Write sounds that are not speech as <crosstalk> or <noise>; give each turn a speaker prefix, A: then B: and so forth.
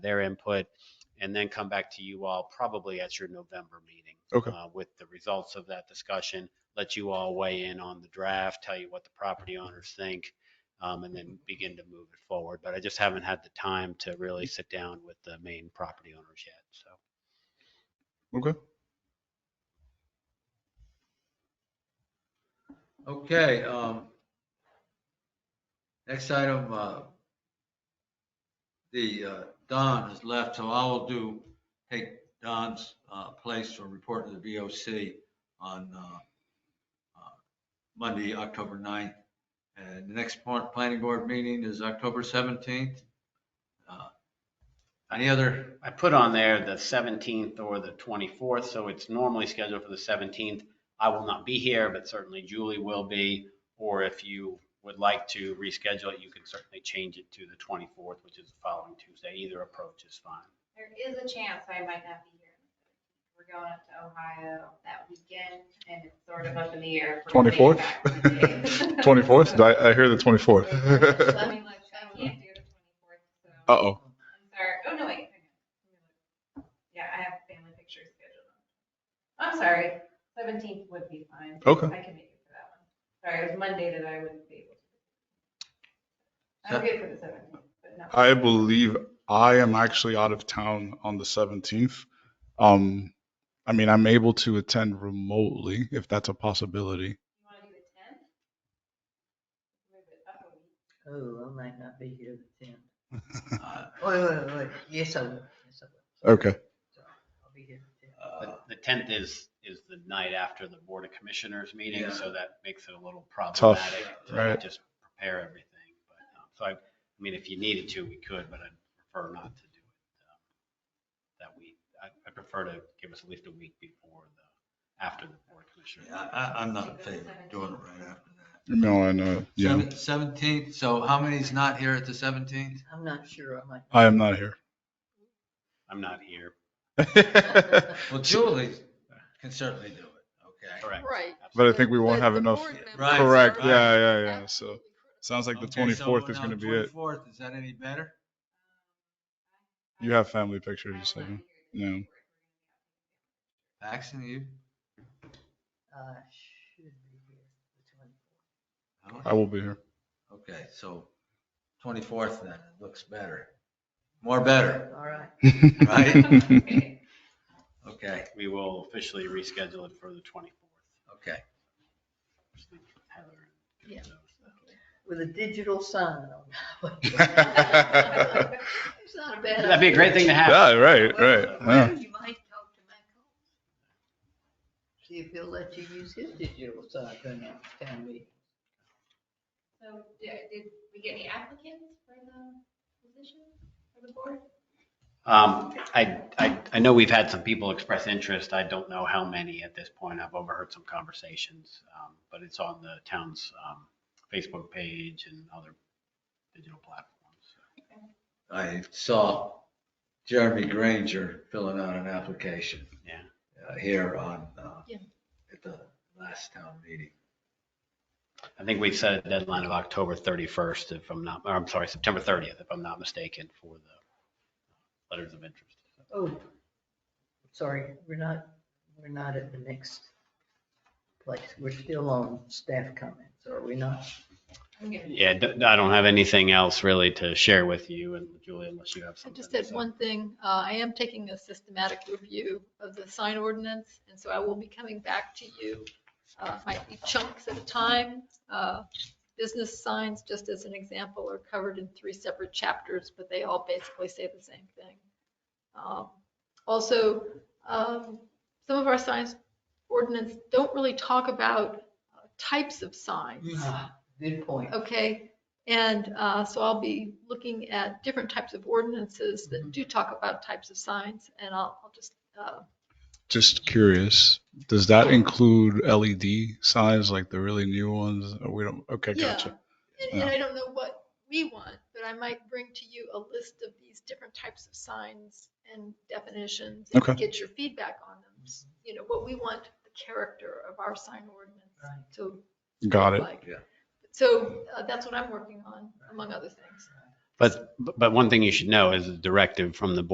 A: their input, and then come back to you all probably at your November meeting.
B: Okay.
A: uh, With the results of that discussion, let you all weigh in on the draft, tell you what the property owners think, um, and then begin to move it forward. But I just haven't had the time to really sit down with the main property owners yet, so.
B: Okay.
C: Okay, um, next item, uh, the, uh, Don is left, so I will do, take Don's, uh, place for reporting to the VOC on, uh, uh, Monday, October 9th. And the next part, planning board meeting is October seventeenth. Uh, Any other,
A: I put on there the 17th or the 24th, so it's normally scheduled for the 17th. I will not be here, but certainly Julie will be. Or if you would like to reschedule it, you can certainly change it to the 24th, which is the following Tuesday. Either approach is fine.
D: There is a chance I might not be here. We're going up to Ohio that weekend and it's sort of up in the air. if we're gonna
B: 24th?
D: make
B: <laughs>
D: it back today.
B: 24th?
D: <laughs>
B: I, I hear the
D: Let
B: 24th.
D: me look. I can't do the twenty-fourth, so
B: <laughs> Uh-oh.
D: I'm sorry. Oh, no, wait. hang on. Yeah, I have family pictures scheduled. I'm sorry. Seventeenth would be fine.
B: Okay.
D: I can make it for that one. Sorry, it was Monday that I wouldn't be able to. I'm good for the seventeenth, but not.
B: I believe I am actually out of town on the 17th. Um, I mean, I'm able to attend remotely if that's a possibility.
D: You want to do the tenth? Move it up a week.
E: Oh, I might not be here the tenth.
C: uh,
E: Wait, wait, wait, yes, I will, yes, I will.
B: Okay.
E: So, I'll be here the tenth.
C: uh,
A: The 10th is, is the night after the Board of Commissioners meeting,
C: Yeah.
A: so that makes it a little problematic to
B: right.
A: just prepare everything. But, um, So I, I mean, if you needed to, we could, but I'd prefer not to do it um, that week. I I prefer to give us at least a week before the, after the Board of Commissioners.
C: I, I- I'm not in favor of doing it right after that.
B: No, I know. Yeah,
C: Seventeenth, so how many's not here at the seventeenth?
E: I'm not sure, I might.
B: I
E: <laughs>
B: am not here. <laughs>
A: I'm not here.
B: but
C: Well, Julie can certainly do it, okay?
A: Correct.
F: Right.
A: Absolutely.
B: I think we won't
F: But
B: have
F: the
B: enough.
F: board members
C: Right.
B: Correct.
C: right.
B: Yeah, yeah, yeah. So sounds like the 24th is going to be it.
C: Twenty-fourth, is that any better?
B: You have family pictures.
D: I
B: you
D: will
B: said.
D: not be
B: No.
D: here the 24th.
C: Paxton, you?
E: I should be here the twenty-fourth.
C: No?
B: I will be here.
C: Okay, so twenty-fourth then, it looks better. More better,
E: All right,
B: <laughs>
D: <laughs>
C: Right.
D: Okay.
C: okay,
A: We will officially reschedule it for the 24th.
C: okay.
A: Heather.
E: Yeah.
A: So-
E: with a digital sign on. <laughs>
B: yeah, <laughs>
E: It's not a bad idea.
A: That'd be a great thing to have.
B: right, right.
E: Well,
B: Yeah.
E: You might talk to Michael. See if he'll let you use his digital sign during our town meeting.
D: So did, did we get any applicants for the position for the board?
A: Um, I, I, I know we've had some people express interest. I don't know how many at this point. I've overheard some conversations. um, But it's on the town's um, Facebook page and other digital platforms.
C: I saw Jeremy Granger filling out an application.
A: Yeah.
C: uh, Here on, uh,
F: Yeah.
C: at the last town meeting.
A: I think we set a deadline of October 31st, if I'm not, or I'm sorry, September 30th, if I'm not mistaken, for the letters of interest.
E: Oh, sorry, we're not, we're not at the next place. We're still on staff comments, are we not?
D: I'm gonna-
A: Yeah, d- I don't have anything else really to share with you and Julie, unless you have
F: I
A: something.
F: just said
A: to say.
F: one thing. Uh, I am taking a systematic review of the sign ordinance, and so I will be coming back to you. Uh, might be chunks at a time. Uh, business signs, just as an example, are covered in three separate chapters, but they all basically say the same thing. Um, Also, um, some of our signs ordinance don't really talk about uh, types of signs.
A: Mm-hmm.
E: Ah, Good point.
F: Okay, and uh, so I'll be looking at different types of ordinances
B: Mm-hmm.
F: that do talk about types of signs, and I'll I'll just, uh,
B: Just curious, does that include LED signs like the really new ones? Oh, We don't. Okay,
F: yeah.
B: gotcha.
F: And- And I don't know what we want, but I might bring to you a list of these different types of signs and definitions. and
B: Okay. Mm-hmm.
F: Get your feedback on them, you know, what we want the character of our sign ordinance
E: Right.
F: to
B: Got
F: look
B: it.
F: like.
C: Yeah.
F: So uh, that's what I'm working on, among other things.
A: But, but one thing you should know is the directive from the board